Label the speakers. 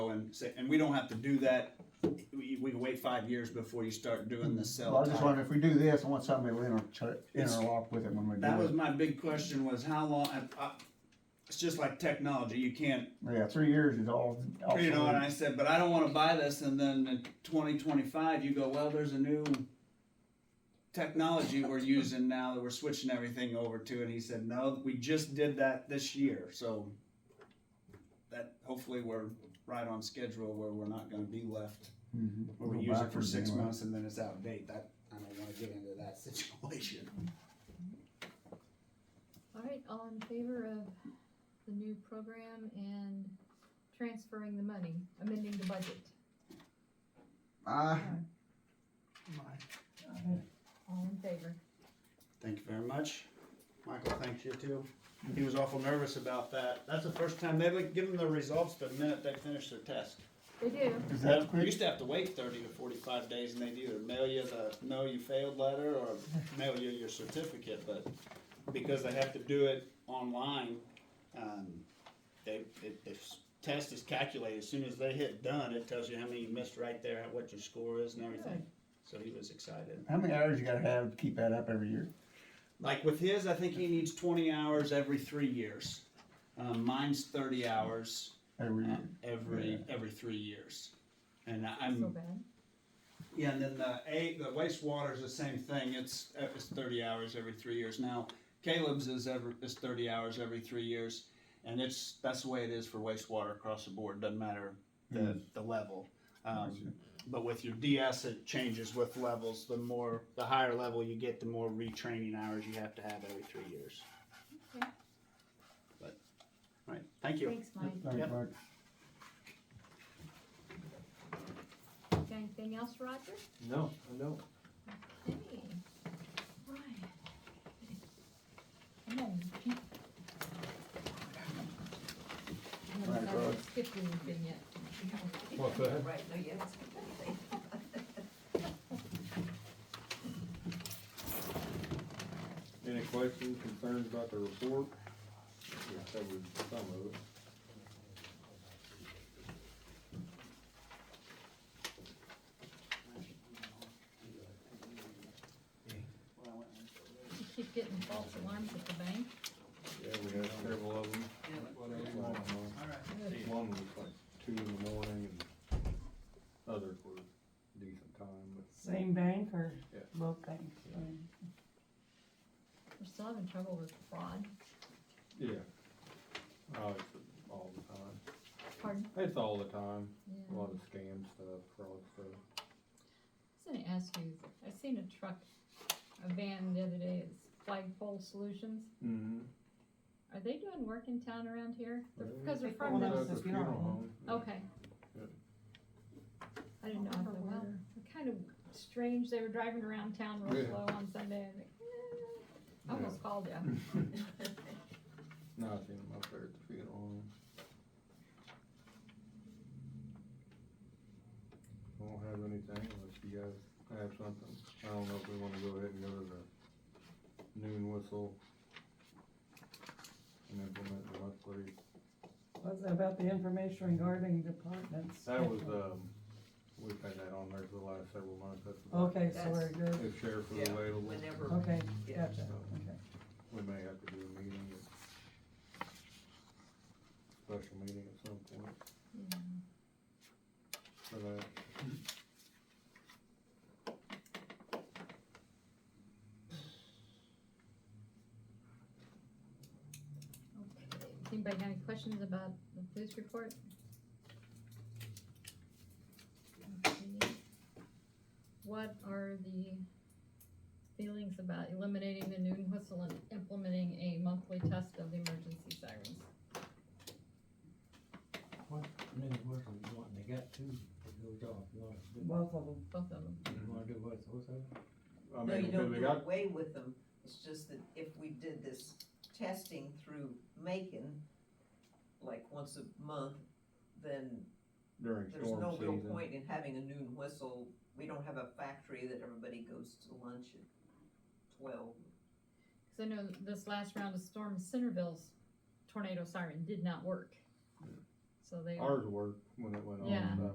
Speaker 1: and say, and we don't have to do that. We, we can wait five years before you start doing the cell.
Speaker 2: Well, I just
Speaker 1: tower.
Speaker 2: wonder if we do this, I want somebody to inter- interlock with it when we
Speaker 1: That was
Speaker 2: do
Speaker 1: my big question was how long, I, I, it's just like technology, you can't,
Speaker 2: it. Yeah, three years is all. all
Speaker 1: you know, and
Speaker 2: solid.
Speaker 1: I said, but I don't wanna buy this and then in twenty twenty-five, you go, well, there's a new technology we're using now that we're switching everything over to, and he said, no, we just did that this year, so that, hopefully we're right on schedule where we're not gonna be left,
Speaker 2: Mhm.
Speaker 1: where we
Speaker 2: Go
Speaker 1: use it for
Speaker 2: backwards
Speaker 1: six
Speaker 2: anyway.
Speaker 1: months and then it's out of date, that, I don't wanna get into that situation.
Speaker 3: All right, all in favor of the new program and transferring the money, amending the budget?
Speaker 2: Ah,
Speaker 3: All in favor?
Speaker 1: Thank you very much. Michael, thanks you too. He was awful nervous about that. That's the first time they've given their results the minute they finish their test.
Speaker 3: They do.
Speaker 2: is that
Speaker 1: We
Speaker 2: quick?
Speaker 1: used to have to wait thirty to forty-five days and they'd either mail you the no, you failed letter or mail you your certificate, but because they have to do it online, um, they, it, the test is calculated. As soon as they hit done, it tells you how many you missed right there, what your score is and everything. So he was excited.
Speaker 2: How many hours you gotta have to keep that up every year?
Speaker 1: Like with his, I think he needs twenty hours every three years. Um, mine's thirty hours
Speaker 2: Every year.
Speaker 1: um, every every three years, and I-
Speaker 3: So
Speaker 4: Mm.
Speaker 1: I'm
Speaker 3: bad.
Speaker 1: yeah. And then the a the wastewater is the same thing. It's uh, it's thirty hours every three years. Now Caleb's is ever is thirty hours every three years, and it's that's the way it is for wastewater across the board. Doesn't matter the the level. Um, but with your DS, it changes with levels. The more, the higher level you get, the more retraining hours you have to have every three years.
Speaker 3: Okay.
Speaker 1: But, all right, thank you.
Speaker 3: Thanks, Mike.
Speaker 2: Thanks,
Speaker 1: Uh, Yep.
Speaker 2: Mike.
Speaker 3: Got anything else, Roger?
Speaker 4: No, I don't.
Speaker 3: Hey, Ryan. Come on. you can't- You haven't
Speaker 2: Right, Rod.
Speaker 3: skipped anything yet.
Speaker 4: What's that?
Speaker 3: Right, no, you haven't skipped anything.
Speaker 4: Any questions, concerns about the report? We covered some of it.
Speaker 3: You keep getting false alarms at the bank.
Speaker 4: Yeah, we had several of them. One was like two in the morning and others were decent time, but
Speaker 5: Same bank or
Speaker 4: Yeah.
Speaker 5: both banks?
Speaker 4: Yeah.
Speaker 3: We're still having trouble with fraud.
Speaker 4: yeah. Oh, it's all the time.
Speaker 3: Pardon?
Speaker 4: It's all the time. A
Speaker 3: Yeah.
Speaker 4: lot of scam stuff, fraud stuff.
Speaker 3: I was gonna ask you, I seen a truck, a van the other day, it's Flagpole Solutions.
Speaker 4: Mm-hmm.
Speaker 3: Are they doing work in town around here? They're-
Speaker 4: Mm-hmm.
Speaker 3: Cause they're
Speaker 5: Well,
Speaker 3: from
Speaker 5: that
Speaker 3: the,
Speaker 5: was the funeral home.
Speaker 3: okay.
Speaker 4: Yeah.
Speaker 3: I didn't know if they were, they're kind of strange, they were driving around town real
Speaker 4: Yeah.
Speaker 3: slow on Sunday, and like, I "Eh." almost called you.
Speaker 4: No, I seen them up there at the funeral home. I don't have anything unless you guys have something. I don't know if we wanna go ahead and go to the noon whistle and implement the monthly.
Speaker 5: Was it about the information regarding departments?
Speaker 4: That was, um, we've had that on there for the last several months. That's about
Speaker 5: Okay, so
Speaker 6: That's-
Speaker 5: we're good,
Speaker 4: If sheriff is
Speaker 6: Yeah,
Speaker 4: available,
Speaker 6: Whenever,
Speaker 5: okay,
Speaker 6: Yeah.
Speaker 5: gotcha, okay.
Speaker 4: we may have to do a meeting, or special meeting at some point
Speaker 3: Yeah.
Speaker 4: for that.
Speaker 3: Okay. Anybody got any questions about the police report? Okay. What are the feelings about eliminating the noon whistle and implementing a monthly test of the emergency sirens?
Speaker 7: What new whistle you want? They got two that goes off. You wanna do,
Speaker 5: Both of them,
Speaker 3: Both of them.
Speaker 7: you wanna do what's, what's that?
Speaker 4: I
Speaker 6: no,
Speaker 4: mean,
Speaker 6: you
Speaker 4: because
Speaker 6: don't
Speaker 4: we
Speaker 6: do
Speaker 4: got
Speaker 6: away with them, it's just that if we did this testing through Macon, like once a month, then
Speaker 4: during
Speaker 6: there's no
Speaker 4: storm
Speaker 6: real
Speaker 4: season.
Speaker 6: point in having a noon whistle. We don't have a factory that everybody goes to lunch at twelve.
Speaker 3: Cause I know this last round of storm, Centerville's tornado siren did not work. So they,
Speaker 4: Ours worked when it went